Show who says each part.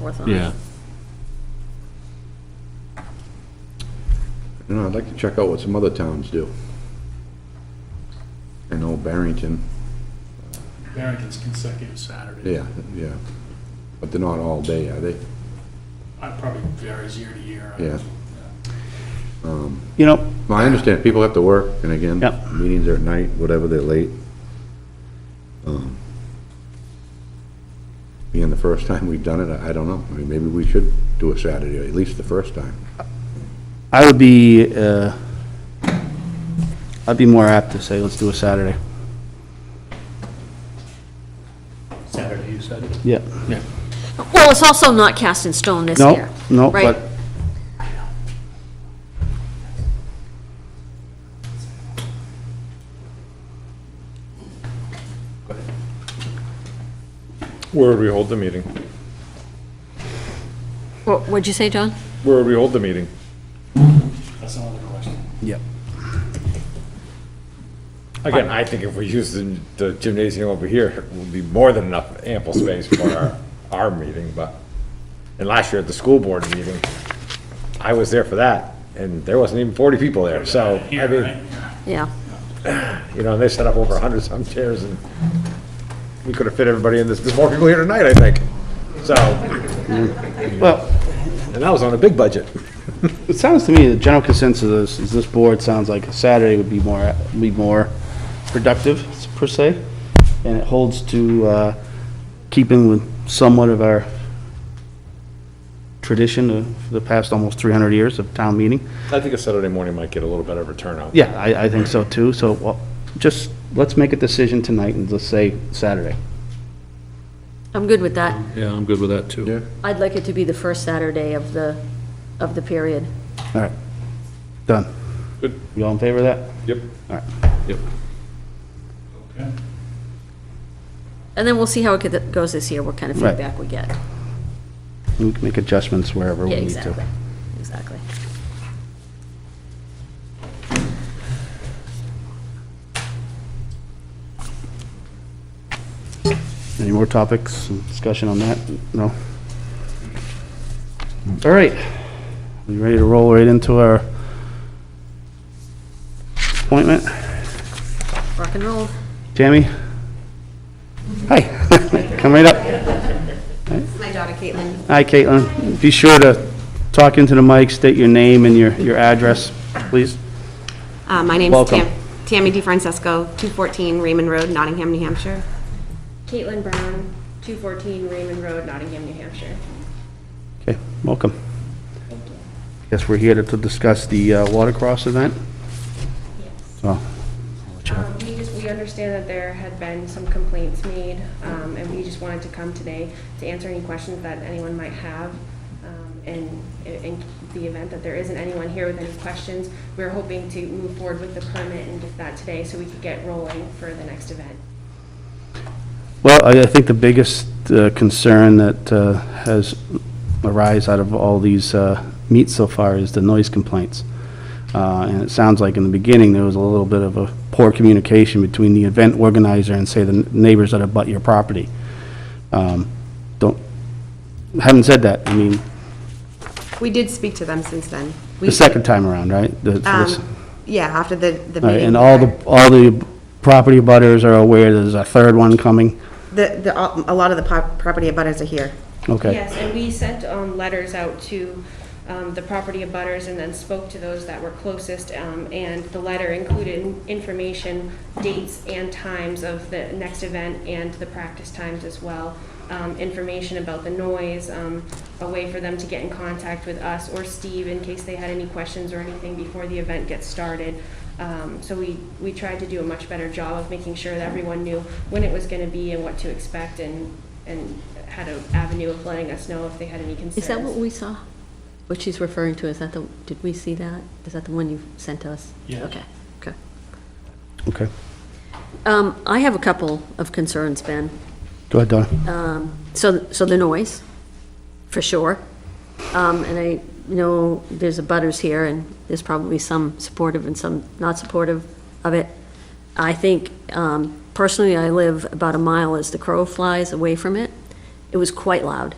Speaker 1: forth on it.
Speaker 2: Yeah.
Speaker 3: No, I'd like to check out what some other towns do. I know Barrington,
Speaker 4: Barrington's consecutive Saturday.
Speaker 3: yeah, yeah, but they're not all day, are they?
Speaker 4: I Uh, probably varies year to year. Uh,
Speaker 3: Yeah.
Speaker 5: You know,
Speaker 3: No, I understand, people have to work, and again,
Speaker 5: Yep.
Speaker 3: meetings are at night, whatever, they're late. Um, Being the first time we've done it, I I don't know, I mean, maybe we should do a Saturday, at least the first time.
Speaker 5: I would be, uh, I'd be more apt to say, let's do a Saturday.
Speaker 4: Saturday, you said?
Speaker 5: Yeah.
Speaker 1: Well, it's also not cast in stone this
Speaker 5: No,
Speaker 1: year.
Speaker 5: no,
Speaker 1: right?
Speaker 5: but
Speaker 6: Where would we hold the meeting?
Speaker 1: What- What'd you say, John?
Speaker 6: Where would we hold the meeting?
Speaker 4: That's another question.
Speaker 5: Yep.
Speaker 6: Again, I think if we use the the gymnasium over here, it will be more than enough ample space for our, our meeting, but, and last year at the school board meeting, I was there for that, and there wasn't even forty people there, so, I
Speaker 4: Here, right?
Speaker 6: mean,
Speaker 1: Yeah.
Speaker 6: you know, and they set up over a hundred some chairs, and we could have fit everybody in this, there's more people here tonight, I think, so,
Speaker 5: Well,
Speaker 6: and that was on a big budget.
Speaker 5: it sounds to me, the general consensus is, is this board sounds like a Saturday would be more, be more productive, per se, and it holds to, uh, keeping with somewhat of our tradition of the past almost 300 years of town meeting.
Speaker 6: I think a Saturday morning might get a little better of a turnout.
Speaker 5: Yeah, I, I think so too, so, well, just, let's make a decision tonight and just say Saturday.
Speaker 1: I'm good with that.
Speaker 2: Yeah, I'm good with that, too.
Speaker 1: I'd like it to be the first Saturday of the, of the period.
Speaker 5: All right, done.
Speaker 6: Good.
Speaker 5: You all in favor of that?
Speaker 6: Yep.
Speaker 5: All right.
Speaker 2: Yep.
Speaker 4: Okay.
Speaker 1: And then we'll see how it could- goes this year, what kind of
Speaker 5: Right.
Speaker 1: feedback we get.
Speaker 5: We can make adjustments wherever we
Speaker 1: Yeah,
Speaker 5: need to.
Speaker 1: exactly, exactly.
Speaker 5: Any more topics, and discussion on that? No? All right. You ready to roll right into our appointment?
Speaker 1: Rock and roll.
Speaker 5: Tammy? Hi. Come right up.
Speaker 7: My daughter Caitlin.
Speaker 5: Hi, Caitlin. Be sure to talk into the mic, state your name and your, your address, please.
Speaker 7: Uh, My name's
Speaker 5: Welcome.
Speaker 7: Tam- Tammy DeFrancesco, 214 Raymond Road, Nottingham, New Hampshire. Caitlin Brown, 214 Raymond Road, Nottingham, New Hampshire.
Speaker 5: Okay, welcome. Guess we're here to to discuss the uh, watercross event? Oh. So,
Speaker 8: Um, We just, we understand that there had been some complaints made, um, and we just wanted to come today to answer any questions that anyone might have. Um, And in- in the event that there isn't anyone here with any questions, we're hoping to move forward with the permit and get that today so we could get rolling for the next event.
Speaker 5: Well, I I think the biggest uh, concern that uh, has arise out of all these uh, meets so far is the noise complaints. Uh, And it sounds like in the beginning, there was a little bit of a poor communication between the event organizer and, say, the neighbors that abut your property. Um, Don't, having said that, I mean,
Speaker 7: We did speak to them since then. um,
Speaker 5: the second time around, right? The- for this-
Speaker 7: Yeah, after the the
Speaker 5: all right,
Speaker 7: meeting.
Speaker 5: And all the, all the property butters are aware there's a third one coming?
Speaker 7: The, the- a lot of the pop- property abutters are here.
Speaker 5: Okay.
Speaker 8: Yes, and we sent um, letters out to um, the property abutters and then spoke to those that were closest. um, And the letter included information, dates and times of the next event and the practice times as well. um, Information about the noise, um, a way for them to get in contact with us or Steve in case they had any questions or anything before the event gets started. Um, So we, we tried to do a much better job of making sure that everyone knew when it was going to be and what to expect and, and had an avenue of letting us know if they had any concerns.
Speaker 1: Is that what we saw? What she's referring to, is that the, did we see that? Is that the one you sent us?
Speaker 4: Yeah.
Speaker 1: Okay, okay.
Speaker 5: Okay.
Speaker 1: Um, I have a couple of concerns, Ben.
Speaker 5: Go ahead, Donna.
Speaker 1: So, so the noise, for sure. Um, and I know there's a butters here, and there's probably some supportive and some not supportive of it. I think, um, personally, I live about a mile as the crow flies away from it. It was quite loud.